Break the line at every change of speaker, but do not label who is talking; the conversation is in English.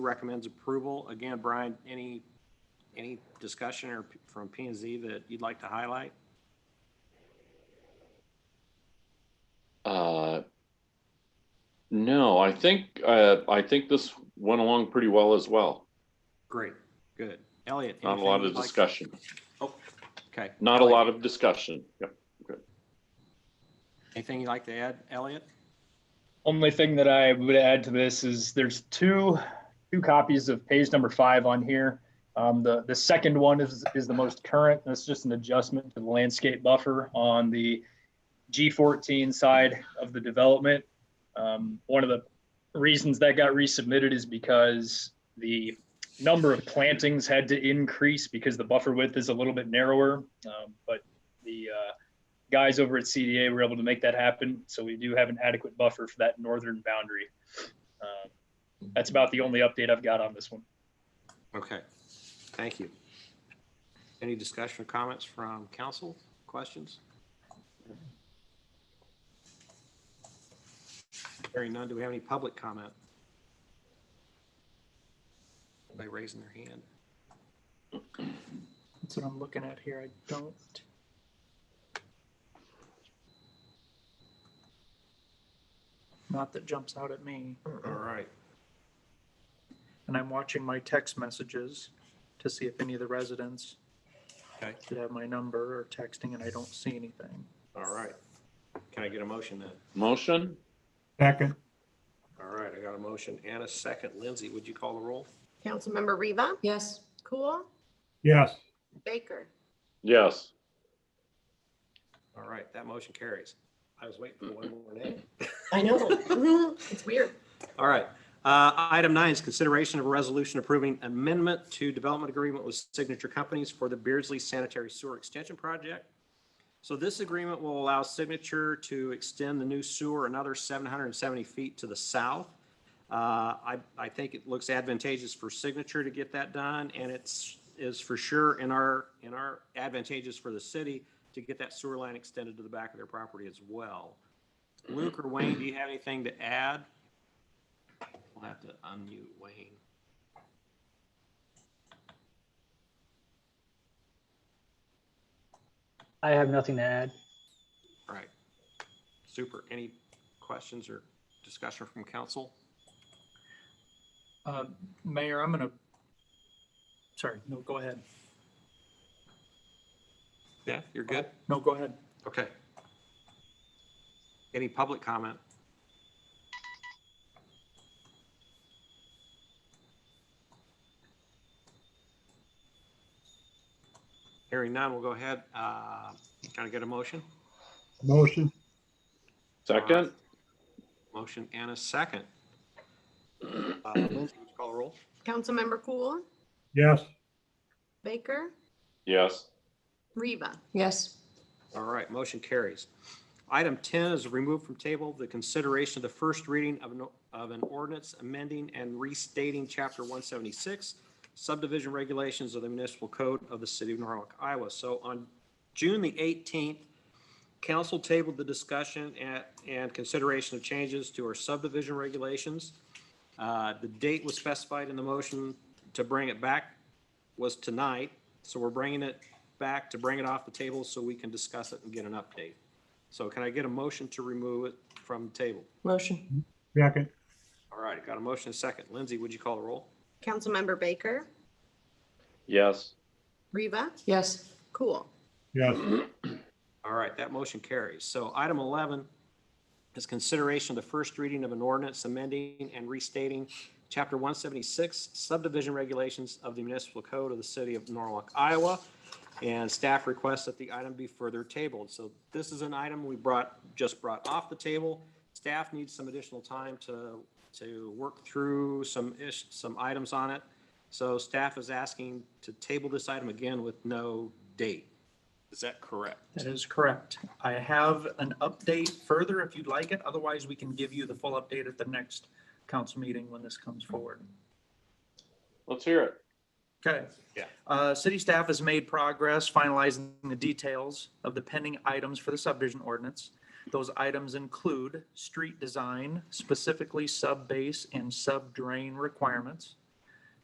recommends approval. Again, Brian, any, any discussion or p- from P and Z that you'd like to highlight?
Uh, no, I think, uh, I think this went along pretty well as well.
Great, good. Elliot?
Not a
anything
lot of
you'd like-
discussion,
Okay.
not a lot of discussion. Yep.
Anything you'd like to add, Elliot?
Only thing that I would add to this is there's two, two copies of page number five on here. Um, the, the second one is, is the most current. That's just an adjustment to the landscape buffer on the G14 side of the development. Um, one of the reasons that got resubmitted is because the number of plantings had to increase because the buffer width is a little bit narrower. Um, but the, uh, guys over at CDA were able to make that happen. So we do have an adequate buffer for that northern boundary. Um, That's about the only update I've got on this one.
Okay, thank you. Any discussion or comments from council? Questions? Hearing none, do we have any public comment? Anybody raising their hand?
That's what I'm looking at here. I don't. Not that jumps out at me.
All right.
And I'm watching my text messages to see if any of the residents
Okay.
should have my number or texting, and I don't see anything.
All right. Can I get a motion then?
Motion?
Second,
All right, I got a motion and a second. Lindsay, would you call the roll?
Councilmember Riva,
Yes,
Cool,
yes,
Baker,
Yes.
All right, that motion carries. I was waiting for one more name.
I know. Mm-hmm. It's weird.
All right. Uh, Item nine is consideration of a resolution approving amendment to development agreement with signature companies for the Beardsley Sanitary Sewer Extension Project. So this agreement will allow Signature to extend the new sewer another 770 feet to the south. Uh, I, I think it looks advantageous for Signature to get that done, and it's, is for sure in our, in our advantageous for the city to get that sewer line extended to the back of their property as well. Luke or Wayne, do you have anything to add? We'll have to unmute Wayne.
I have nothing to add.
All right. Super. Any questions or discussion from council?
Uh, Mayor, I'm gonna, sorry, no, go ahead.
Yeah, you're good?
No, go ahead.
Okay. Any public comment? Hearing none, we'll go ahead. Uh, Can I get a motion?
motion,
Second?
Motion and a second. Uh, Lindsay, would you call the roll?
Councilmember Cool,
yes,
Baker,
Yes.
Riva,
yes,
All right, motion carries. Item 10 is removed from table, the consideration of the first reading of an, of an ordinance amending and restating Chapter 176 subdivision regulations of the municipal code of the city of Norwalk, Iowa. So on June the 18th, council tabled the discussion and, and consideration of changes to our subdivision regulations. Uh, The date was specified in the motion to bring it back was tonight, so we're bringing it back to bring it off the table so we can discuss it and get an update. So can I get a motion to remove it from the table?
motion,
second,
All right, got a motion and a second. Lindsay, would you call the roll?
Councilmember Baker,
Yes.
Riva,
yes,
Cool,
yes,
All right, that motion carries. So item 11 is consideration of the first reading of an ordinance amending and restating Chapter 176 subdivision regulations of the municipal code of the city of Norwalk, Iowa. And staff requests that the item be further tabled. So this is an item we brought, just brought off the table. Staff needs some additional time to, to work through some ish, some items on it. So staff is asking to table this item again with no date. Is that correct?
That is correct. I have an update further if you'd like it. Otherwise, we can give you the full update at the next council meeting when this comes forward.
Let's hear it.
Okay.
Yeah.
Uh, city staff has made progress finalizing the details of the pending items for the subdivision ordinance. Those items include street design, specifically sub-base and sub-drain requirements,